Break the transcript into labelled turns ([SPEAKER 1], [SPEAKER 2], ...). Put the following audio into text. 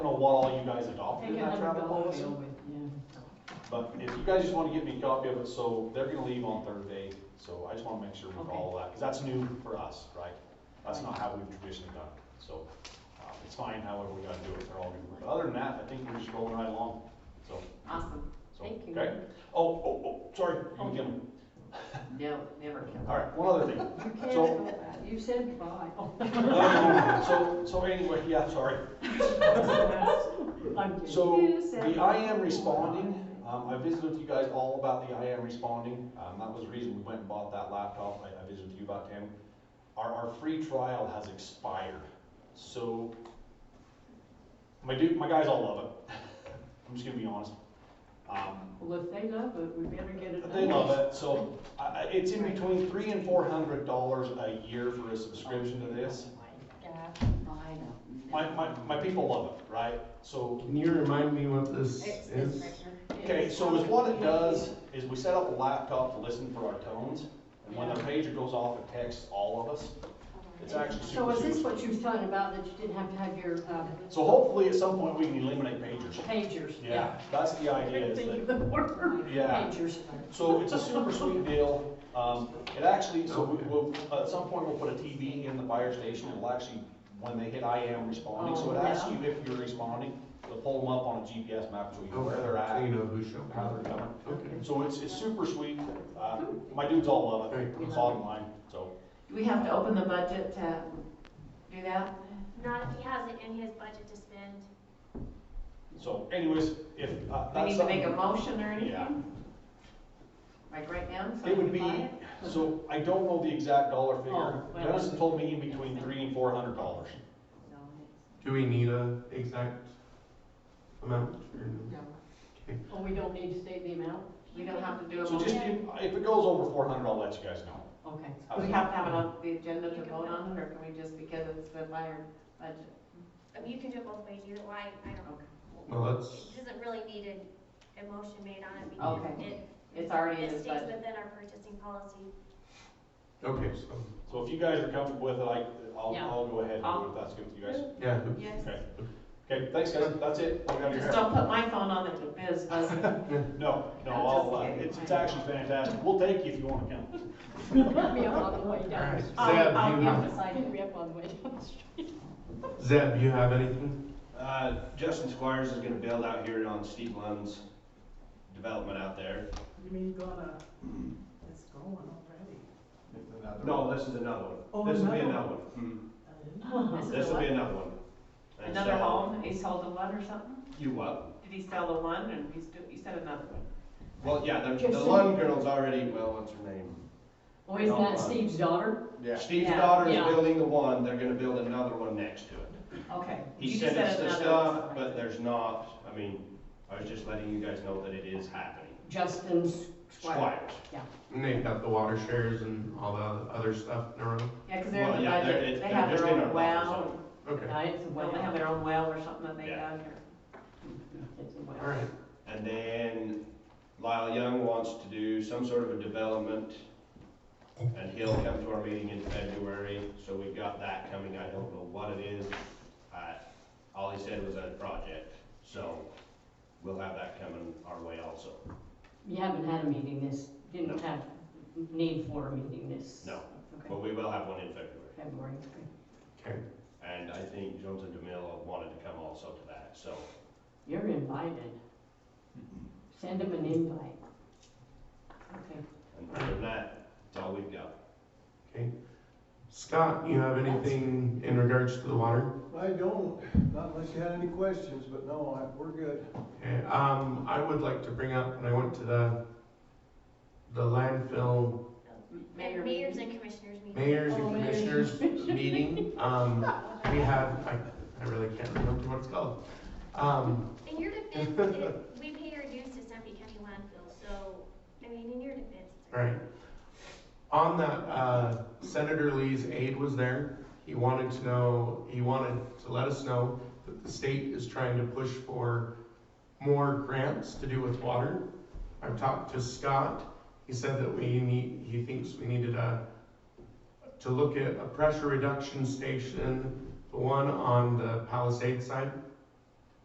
[SPEAKER 1] what all you guys adopted
[SPEAKER 2] Take
[SPEAKER 1] in that
[SPEAKER 2] another
[SPEAKER 1] travel
[SPEAKER 2] golf
[SPEAKER 1] policy.
[SPEAKER 2] deal with, yeah.
[SPEAKER 1] But if you guys just wanna give me a copy of it, so they're gonna leave on Thursday, so I just wanna make sure we
[SPEAKER 2] Okay.
[SPEAKER 1] follow that, cause that's new for us, right? That's not
[SPEAKER 2] Right.
[SPEAKER 1] how we've traditionally done it, so, uh, it's fine however we gotta do it, they're all new. But other than that, I think we're just rolling right along, so.
[SPEAKER 3] Awesome,
[SPEAKER 1] so,
[SPEAKER 3] thank you.
[SPEAKER 1] Okay, oh, oh, oh, sorry, you can give me,
[SPEAKER 3] No, never.
[SPEAKER 1] alright, one other thing.
[SPEAKER 2] You can't
[SPEAKER 1] So-
[SPEAKER 2] go back. You said goodbye.
[SPEAKER 1] Um, So, so anyway, yeah, sorry.
[SPEAKER 2] I'm kidding.
[SPEAKER 1] So,
[SPEAKER 3] You said-
[SPEAKER 1] the I am responding, um, I visited with you guys all about the I am responding, um, that was the reason we went and bought that laptop, I, I visited with you about Tammy. Our, our free trial has expired, so, my dude, my guys all love it, I'm just gonna be honest. Um,
[SPEAKER 2] Well, if they love it, we better get it.
[SPEAKER 1] they
[SPEAKER 2] done.
[SPEAKER 1] love it, so, I, I, it's in between three and four hundred dollars a year for a subscription to this.
[SPEAKER 2] Oh
[SPEAKER 3] Yeah, I know.
[SPEAKER 1] My, my, my people love it, right, so,
[SPEAKER 4] Can you remind me what this
[SPEAKER 5] It's this
[SPEAKER 4] is?
[SPEAKER 5] right here.
[SPEAKER 1] Okay, so is what it does is we set up a laptop to listen for our tones, and when the pager goes off, it texts all of us. It's actually
[SPEAKER 2] So
[SPEAKER 1] super,
[SPEAKER 2] is
[SPEAKER 1] super.
[SPEAKER 2] this
[SPEAKER 1] sweet.
[SPEAKER 2] what you was talking about, that you didn't have to have your uh,
[SPEAKER 1] So hopefully at some point we can eliminate pagers.
[SPEAKER 2] pagers?
[SPEAKER 1] Yeah, that's the
[SPEAKER 2] I
[SPEAKER 1] idea
[SPEAKER 2] couldn't
[SPEAKER 1] is
[SPEAKER 2] think
[SPEAKER 1] that,
[SPEAKER 2] of the word,
[SPEAKER 1] Yeah.
[SPEAKER 2] pagers.
[SPEAKER 1] so it's a super sweet deal. Um, it actually, so we, we'll, at some point we'll put a TV in the fire station, it'll actually, when they hit I am responding, so it
[SPEAKER 2] Oh,
[SPEAKER 1] asks you if you're responding, it'll pull them up on a GPS map, so you know Oh, where they're
[SPEAKER 4] So you
[SPEAKER 1] at,
[SPEAKER 4] know who showed
[SPEAKER 1] how they're
[SPEAKER 4] up.
[SPEAKER 1] coming.
[SPEAKER 4] Okay.
[SPEAKER 1] So it's, it's super sweet, uh, my dudes all love it,
[SPEAKER 4] Very cool.
[SPEAKER 1] it's online, so.
[SPEAKER 3] Do we have to open the budget to do that?
[SPEAKER 5] Not if he has it in his budget to spend.
[SPEAKER 1] So anyways, if, uh,
[SPEAKER 3] Do we
[SPEAKER 1] that's
[SPEAKER 3] need to make a
[SPEAKER 1] something,
[SPEAKER 3] motion or
[SPEAKER 1] Yeah.
[SPEAKER 3] anything? Like right now? so
[SPEAKER 1] it
[SPEAKER 3] we
[SPEAKER 1] would
[SPEAKER 3] can buy
[SPEAKER 1] be,
[SPEAKER 3] it?
[SPEAKER 1] so I don't know the exact dollar figure,
[SPEAKER 2] Oh, well,
[SPEAKER 1] Dennis
[SPEAKER 2] then-
[SPEAKER 1] told me in between three and four hundred dollars.
[SPEAKER 4] Do we need a exact amount or no?
[SPEAKER 3] No,
[SPEAKER 4] Okay.
[SPEAKER 2] Oh, we don't need to state the amount?
[SPEAKER 3] We don't have to do a
[SPEAKER 1] So just,
[SPEAKER 3] motion?
[SPEAKER 1] if, if it goes over four hundred, I'll let you guys know.
[SPEAKER 2] Okay.
[SPEAKER 3] Do we have to have it on the agenda to vote on it, or can we just, because it's been by our budget?
[SPEAKER 5] I mean, you can do it both ways, either way, I don't,
[SPEAKER 3] Okay.
[SPEAKER 4] Well, that's,
[SPEAKER 5] it doesn't really need an emotion made on it
[SPEAKER 3] Okay.
[SPEAKER 5] because it,
[SPEAKER 3] It's already in
[SPEAKER 5] it
[SPEAKER 3] his
[SPEAKER 5] stays
[SPEAKER 3] budget.
[SPEAKER 5] within our purchasing policy.
[SPEAKER 4] okay, so,
[SPEAKER 1] So if you guys are comfortable with it, I, I'll,
[SPEAKER 2] Yeah.
[SPEAKER 1] I'll go ahead and do
[SPEAKER 3] I'll-
[SPEAKER 1] it if that's good with you guys.
[SPEAKER 4] yeah.
[SPEAKER 3] Yes.
[SPEAKER 1] Okay, okay, thanks guys, that's it. I'll grab your
[SPEAKER 3] Just
[SPEAKER 1] hair.
[SPEAKER 3] don't put my phone on it, the biz buzzing.
[SPEAKER 1] No, no,
[SPEAKER 3] I'm
[SPEAKER 1] I'll,
[SPEAKER 3] just
[SPEAKER 1] uh,
[SPEAKER 3] kidding.
[SPEAKER 1] it's, it's actually fantastic, we'll take you if you wanna come.
[SPEAKER 2] Let me up on the way
[SPEAKER 4] All right.
[SPEAKER 2] down.
[SPEAKER 4] Zeb,
[SPEAKER 3] I'll
[SPEAKER 4] you
[SPEAKER 3] give
[SPEAKER 4] have-
[SPEAKER 3] the side.
[SPEAKER 2] Pick me up on the way down the street.
[SPEAKER 4] Zeb, you have anything?
[SPEAKER 6] Uh, Justin Squires is gonna build out here on Steve Lund's development out there.
[SPEAKER 7] You mean gonna, it's going already.
[SPEAKER 6] No, this is another one.
[SPEAKER 7] Oh,
[SPEAKER 6] This will be
[SPEAKER 7] another
[SPEAKER 6] another one.
[SPEAKER 2] Uh-huh.
[SPEAKER 3] This
[SPEAKER 6] Hmm.
[SPEAKER 3] is
[SPEAKER 6] This
[SPEAKER 3] a
[SPEAKER 6] will be
[SPEAKER 3] what?
[SPEAKER 6] another one. And
[SPEAKER 3] Another
[SPEAKER 6] so-
[SPEAKER 3] home, he sold the one or something?
[SPEAKER 6] You what?
[SPEAKER 3] Did he sell the one and he's, do- he said another one?
[SPEAKER 6] Well, yeah, the, the
[SPEAKER 2] Justin.
[SPEAKER 6] Lund girl's already, well, what's her name?
[SPEAKER 2] Oh, is that Steve's daughter?
[SPEAKER 6] Yeah. Steve's
[SPEAKER 3] Yeah,
[SPEAKER 6] daughter's
[SPEAKER 2] yeah.
[SPEAKER 6] building the one, they're gonna build another one next to it.
[SPEAKER 3] Okay.
[SPEAKER 6] He
[SPEAKER 3] You
[SPEAKER 6] said
[SPEAKER 3] just
[SPEAKER 6] it's the
[SPEAKER 3] another
[SPEAKER 6] stuff,
[SPEAKER 3] one.
[SPEAKER 6] but there's not, I mean, I was just letting you guys know that it is happening.
[SPEAKER 2] Justin Squire.
[SPEAKER 6] Squires.
[SPEAKER 4] And they've got the water shares and all the other stuff in a row?
[SPEAKER 3] Yeah, because they're in
[SPEAKER 6] Well,
[SPEAKER 3] the
[SPEAKER 6] yeah, they're-
[SPEAKER 3] budget,
[SPEAKER 6] it's-
[SPEAKER 3] they
[SPEAKER 6] they're
[SPEAKER 3] have
[SPEAKER 6] just
[SPEAKER 3] their
[SPEAKER 6] in our
[SPEAKER 3] own
[SPEAKER 6] buffer
[SPEAKER 3] well,
[SPEAKER 6] zone.
[SPEAKER 4] Okay,
[SPEAKER 3] yeah, it's a well, they have their own well or something that they
[SPEAKER 6] Yeah.
[SPEAKER 3] dug or. It's a well.
[SPEAKER 4] all right.
[SPEAKER 6] And then Lyle Young wants to do some sort of a development, and he'll come to our meeting in February, so we've got that coming, I don't know what it is. Uh, All he said was a project, so we'll have that coming our way also.
[SPEAKER 2] You haven't had a meeting this, didn't
[SPEAKER 6] No.
[SPEAKER 2] have need for a meeting this.
[SPEAKER 6] No.
[SPEAKER 2] Okay,
[SPEAKER 6] But we will have one in February,
[SPEAKER 2] February, okay.
[SPEAKER 4] Okay,
[SPEAKER 6] and I think Jones and DeMille wanted to come also to that, so.
[SPEAKER 2] You're invited.
[SPEAKER 6] Mm-hmm.
[SPEAKER 2] Send them an invite. Okay.
[SPEAKER 6] And other than that, that's all we've got.
[SPEAKER 4] okay. Scott, you have anything in regards to the water?
[SPEAKER 8] I don't, not unless you had any questions, but no, I, we're good.
[SPEAKER 4] Okay, um, I would like to bring up, when I went to the, the landfill
[SPEAKER 3] Mayor
[SPEAKER 5] And mayors
[SPEAKER 3] meeting.
[SPEAKER 5] and commissioners meeting.
[SPEAKER 4] mayors and
[SPEAKER 2] Oh, mayors.
[SPEAKER 4] commissioners meeting, um, we had, I, I really can't remember what it's called. Um,
[SPEAKER 5] In your defense, it- we pay our dues to Sandy County landfill, so, I mean, in your defense. it's-
[SPEAKER 4] right. On that, uh, Senator Lee's aide was there. He wanted to know, he wanted to let us know that the state is trying to push for more grants to do with water. I've talked to Scott. He said that we need, he thinks we needed a, to look at a pressure reduction station, the one on the Palisade side.